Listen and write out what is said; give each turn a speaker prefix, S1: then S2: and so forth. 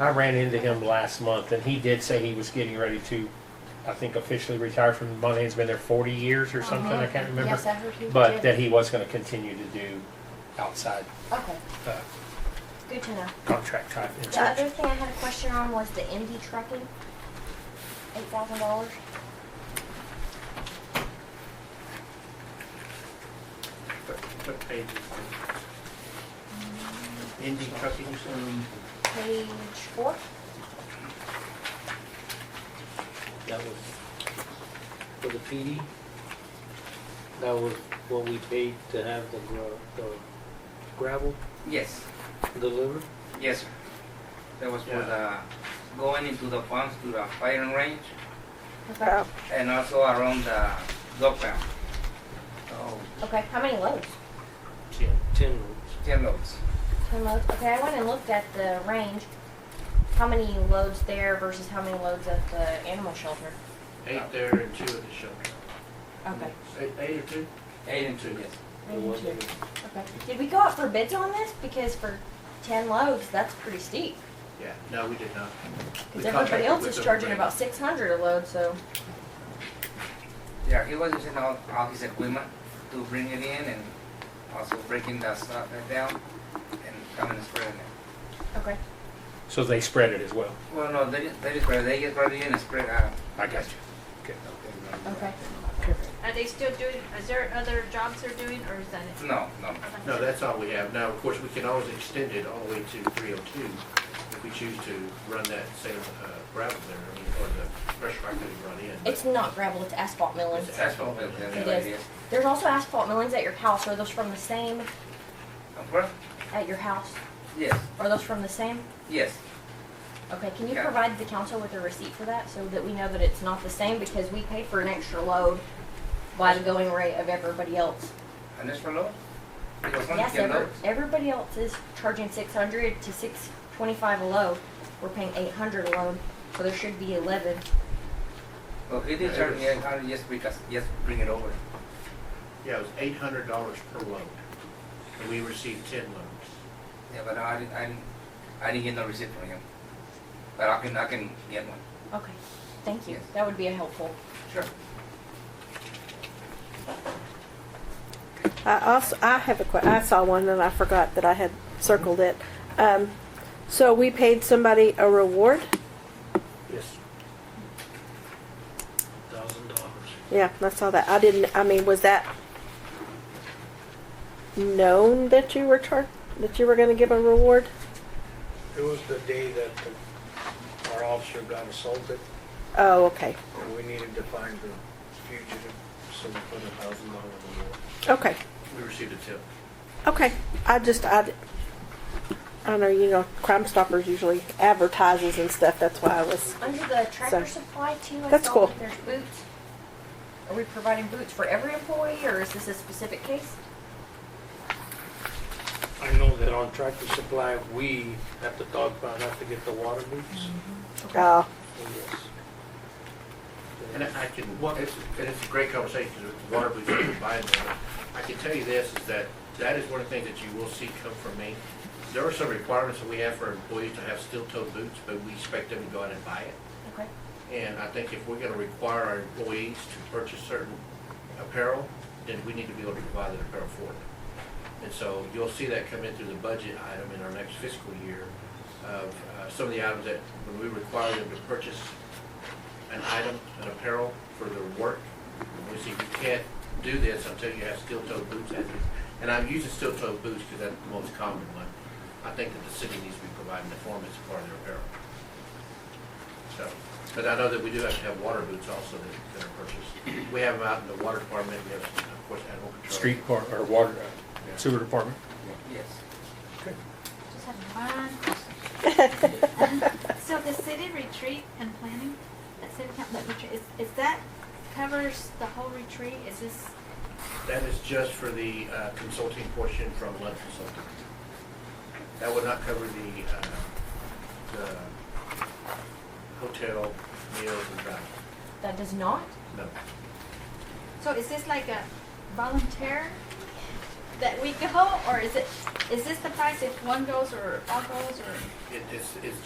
S1: I ran into him last month, and he did say he was getting ready to, I think, officially retire from the money. He's been there 40 years or something. I can't remember.
S2: Uh-huh. Yes, I heard you.
S1: but
S2: did.
S1: that he was going to continue to do outside
S2: Okay,
S1: uh,
S2: good to know.
S1: contract type
S2: The other
S1: inspection.
S2: thing I had a question on was the MD trucking, eight thousand dollars.
S3: What- What page? Indy Trucking, um,
S2: Page four?
S4: That was for the PD. That was what we paid to have the gra- the gravel
S5: Yes,
S4: delivered.
S5: yes, sir. That was for the,
S3: Yeah.
S5: going into the farms to the firing range
S2: Okay.
S5: and also around the dog pound. So,
S2: Okay, how many loads?
S4: Ten. Ten loads.
S5: ten loads.
S2: Ten loads? Okay, I went and looked at the range, how many loads there versus how many loads at the animal shelter?
S3: eight there and two at the shelter.
S2: Okay.
S3: Eight, eight or two?
S5: Eight and two, yes.
S4: It wasn't
S2: Okay. Did we go out for bids on this? Because for ten loads, that's pretty steep.
S3: Yeah, no, we did not. We
S2: Because everybody
S3: contracted
S2: else
S3: with
S2: is
S3: them,
S2: charging
S3: right?
S2: about six hundred a load, so.
S5: Yeah, he was using all, all his equipment to bring it in and also breaking the stuff down and coming and spreading it.
S2: Okay.
S1: So they spread it as well.
S5: Well, no, they, they just spread, it. they just spread it in and spread uh, it out.
S1: I got you.
S2: Okay.
S6: Are they still doing, is there other jobs they're doing, or is that it?
S5: No, no,
S3: No, that's all we have. Now, of course, we can always extend it all the way to three oh two if we choose to run that same uh, gravel there, I mean, or the pressure pipe that we run in. but-
S2: It's not gravel, it's asphalt millings.
S3: It's
S5: that's what we have,
S3: It
S5: that's what
S2: is.
S5: it is.
S2: There's also asphalt millings at your house. Are those from the same
S5: Of course,
S2: at your house?
S5: yes,
S2: Are those from the same?
S5: yes,
S2: Okay, can you
S5: Yeah.
S2: provide the council with a receipt for that so that we know that it's not the same because we paid for an extra load by the going rate of everybody else?
S5: and that's for low? It was only
S2: Yes,
S5: ten
S2: every,
S5: loads.
S2: everybody else is charging six hundred to six twenty-five a load. We're paying eight hundred a load, so there should be eleven.
S5: Well, Oh, he did charge me eight hundred just because, just bring it over.
S3: Yeah, it was eight hundred dollars per load, and we received ten loads.
S5: Yeah, but I didn't, I didn't, I didn't get no receipt from him. But I can, I can get one.
S2: Okay, thank you.
S5: Yes.
S2: That would be a helpful.
S5: Sure.
S7: I also, I have a que- I saw one and I forgot that I had circled it. Um, so we paid somebody a reward.
S4: Yes. Thousand dollars.
S7: Yeah, I saw that. I didn't. I mean, was that known that you were char- that you were going to give a reward?
S8: It was the day that the- our officer got assaulted,
S7: Oh, okay.
S8: and we needed to find the fugitive, so we put a thousand dollar reward.
S7: Okay.
S3: We received a tip.
S7: Okay. I just I. I don't know. You know, Crime Stoppers usually advertises and stuff. That's why I was.
S2: Under the tractor
S7: So,
S2: supply too, I
S7: that's
S2: saw
S7: cool.
S2: that there's boots. Are we providing boots for every employee or is this a specific case?
S4: I know that on Tractor Supply, we at the dog pound have to get the water boots.
S7: Oh,
S4: Yes.
S3: And I can, it's, and it's a great conversation, because with the water boots that we're buying them. I can tell you this, is that, that is one of the things that you will see come from me. There are some requirements that we have for employees to have steel-toed boots, but we expect them to go out and buy it.
S2: Okay.
S3: And I think if we're gonna require our employees to purchase certain apparel, then we need to be able to provide that apparel for them. And so you'll see that come in through the budget item in our next fiscal year of uh, some of the items that, when we require them to purchase an item, an apparel for their work. We say you can't do this until you have steel-toed boots. And- And I'm using steel-toed boots because that's the most common one. I think that the city needs to be providing the form as part of their apparel. So, but I know that we do have to have water boots also that that are purchased. We have them out in the water department, we have, of course, animal control.
S1: Street depart- or water, uh,
S3: Yeah.
S1: sewer department.
S5: Yes.
S6: Just have one question. So the city retreat and planning, that city council that retreat, is, is that covers the whole retreat? Is this,
S3: That is just for the uh, consulting portion from Lund Consulting. That would not cover the, uh, the hotel meals and travel,
S2: That does not?
S3: no.
S6: so is this like a volunteer that we go, or is it, is this the price if one goes or all goes, or?
S3: It- It's, it's